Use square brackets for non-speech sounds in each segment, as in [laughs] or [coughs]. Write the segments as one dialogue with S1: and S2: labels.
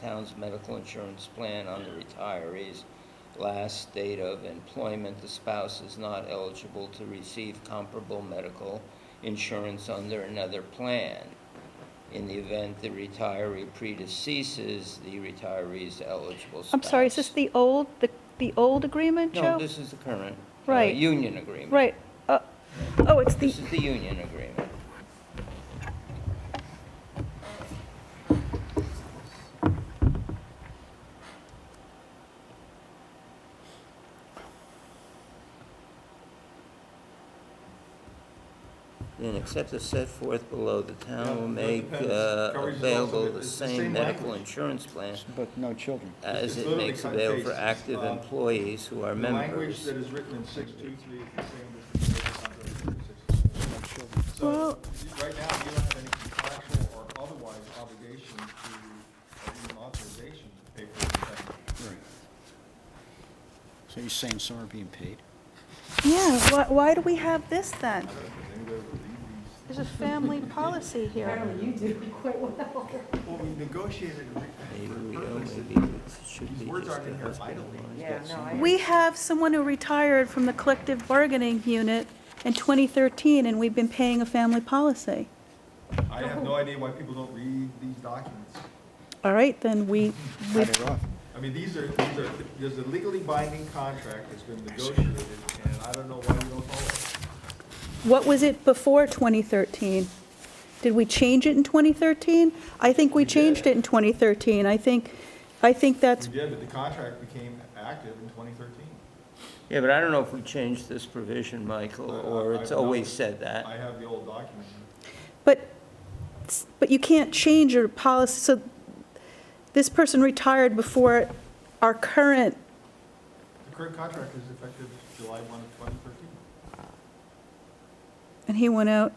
S1: town's medical insurance plan on the retiree's last date of employment, the spouse is not eligible to receive comparable medical insurance under another plan. In the event the retiree predeceases the retiree's eligible spouse.
S2: I'm sorry, is this the old, the, the old agreement, Joe?
S1: No, this is the current. uh,
S2: Right.
S1: Union agreement.
S2: Right, uh, oh, it's the,
S1: This is the union agreement. Then except as set forth below, the town will
S3: Yeah, that
S1: make
S3: depends.
S1: uh,
S3: Covers is also-
S1: available the
S3: it's the
S1: same
S3: same
S1: medical
S3: language.
S1: insurance plan
S4: But no children.
S1: as
S3: It's
S1: it
S3: literally
S1: makes
S3: cut
S1: available for
S3: paste.
S1: active
S3: Uh,
S1: employees who are
S3: The language
S1: members.
S3: that is written in six two three is the same as the contract in 623. So,
S2: Well-
S3: you- right now, you don't have any contractual or otherwise obligation to, or even authorization to pay for the benefit.
S4: Right. So you're saying some are being paid?
S2: yeah, why, why do we have this then?
S3: I don't think anybody would leave these.
S2: There's a family policy here.
S5: Apparently you do quite well.
S3: Well, we negotiated a re-
S1: Maybe we
S3: for a
S1: don't,
S3: purpose that
S1: maybe it should
S3: these
S1: be
S3: words
S1: just
S3: aren't
S1: the
S3: in here
S1: husband
S3: idly.
S1: and wife.
S5: Yeah, no, I.
S2: We have someone who retired from the collective bargaining unit in 2013, and we've been paying a family policy.
S3: I have no idea why people don't read these documents.
S2: All right, then we, we,
S4: Cut it off.
S3: I mean, these are, these are, there's a legally binding contract that's been negotiated, and I don't know why we don't follow it.
S2: what was it before 2013? Did we change it in 2013? I think we
S3: did.
S2: changed it in 2013. I think, I think that's,
S3: We did, but the contract became active in 2013.
S1: Yeah, but I don't know if we changed this provision, Michael,
S3: I- I-
S1: or it's
S3: I've
S1: always
S3: not-
S1: said
S3: I
S1: that.
S3: have the old document.
S2: but, but you can't change your policy, so this person retired before our current,
S3: The current contract is effective July 1 of 2013.
S2: and he went out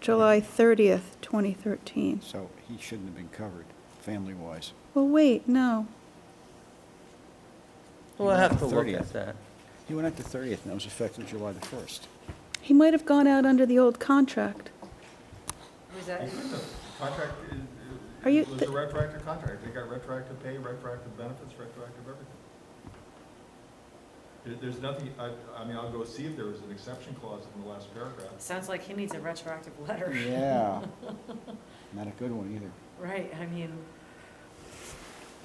S2: July 30th, 2013.
S4: So he shouldn't have been covered, family-wise.
S2: Well, wait, no.
S1: We'll have to look
S4: 30th.
S1: at that.
S4: He went out the 30th, and that was effective July the 1st.
S2: He might have gone out under the old contract.
S5: Was that,
S3: He couldn't have. The Contract is,
S2: Are you-
S3: it was a retroactive contract. They got retroactive pay, retroactive benefits, retroactive everything. There- There's nothing, I, I mean, I'll go see if there was an exception clause in the last paragraph.
S5: sounds like he needs a retroactive letter.
S4: Yeah. [laughs] Not a good one either.
S5: [laughs] Right, I mean,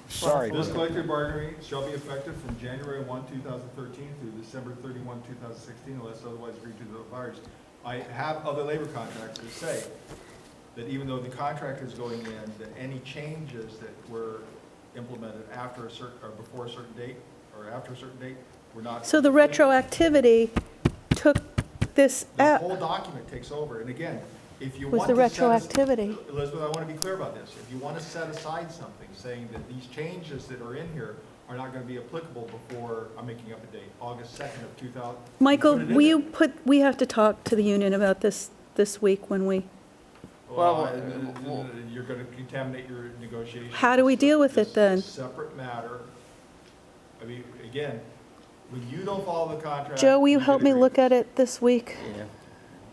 S4: Sorry.
S3: This
S4: but-
S3: collective bargaining shall be effective from January 1, 2013 through December 31, 2016, unless otherwise agreed to the buyers. I have other labor contracts that say that even though the contract is going in, that any changes that were implemented after a certain, or before a certain date, or after a certain date, were not.
S2: So the retroactivity took this
S3: The
S2: out.
S3: whole document takes over, and again, if you
S2: Uh, Was
S3: want
S2: the
S3: to set as-
S2: retroactivity.
S3: Elizabeth, I want to be clear about this. If you want to set aside something, saying that these changes that are in here are not going to be applicable before, I'm making up a date, August 2nd of 2000.
S2: Michael,
S3: put it in
S2: will you
S3: there.
S2: put, we have to talk to the union about this, this week when we,
S1: Well,
S3: Well, I-
S1: uh, well-
S3: you're going to contaminate your negotiations.
S2: How do we deal with it
S3: This is a
S2: then?
S3: Separate matter. I mean, again, when you don't follow the contract.
S2: Joe, will you
S3: get
S2: help me
S3: a
S2: look
S3: grievance.
S2: at it this week?
S1: Yeah.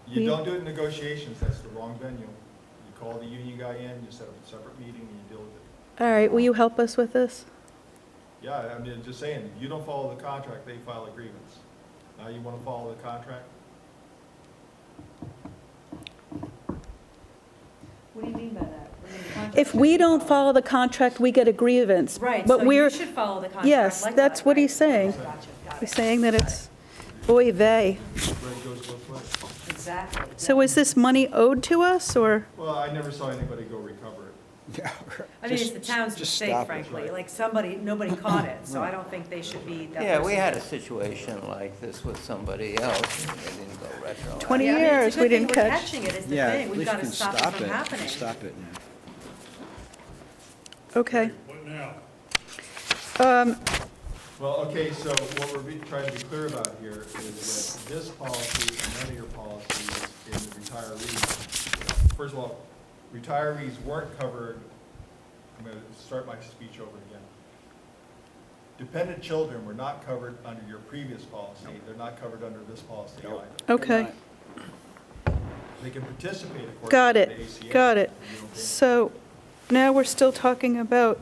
S2: Will
S3: You
S2: you-
S3: don't do it in negotiations, that's the wrong venue. You call the union guy in, you set up a separate meeting, and you deal with it.
S2: All right, will you help us with this?
S3: Yeah, I mean, just saying, you don't follow the contract, they file a grievance. Now you want to follow the contract?
S5: what do you mean by that? I mean, the contract
S2: If we
S5: should be
S2: don't
S5: followed.
S2: follow the contract, we get a grievance.
S5: Right,
S2: But
S5: so
S2: we're
S5: you should follow the contract.
S2: yes,
S5: like
S2: that's
S5: that,
S2: what
S5: right.
S2: he's saying.
S5: Gotcha, got
S2: we're
S5: it.
S2: saying that it's oy vey.
S3: Red goes both ways.
S5: Exactly.
S2: So
S5: yeah.
S2: is this money owed to us, or?
S3: Well, I never saw anybody go recover it.
S4: [laughs] Yeah, right.
S5: I mean, it's
S4: Just-
S5: the town's
S4: just
S5: mistake,
S4: stop it.
S5: frankly, like, somebody,
S4: [coughs]
S5: nobody caught it, so I don't think they should be that person.
S1: Yeah, we had a situation like this with somebody else, and they didn't go retro.
S2: 20
S5: Yeah, I mean, it's a
S2: years,
S5: good
S2: we
S5: thing
S2: didn't
S5: we're
S2: catch.
S5: catching it, is the
S4: Yeah, at
S5: thing, we've
S4: least
S5: got to
S4: you can
S5: stop it from
S4: it.
S5: happening.
S4: Stop it now.
S2: Okay.
S6: What now?
S2: Um,
S3: Well, okay, so what we're be- trying to be clear about here is that this policy and none of your policies in the retirees, first of all, retirees weren't covered, I'm going to start my speech over again. Dependent children were not covered under your previous policy, they're not covered under this policy either.
S2: Okay,
S3: They can participate according to the ACA.
S2: got it, got it.
S3: You don't think-
S2: So now we're still talking about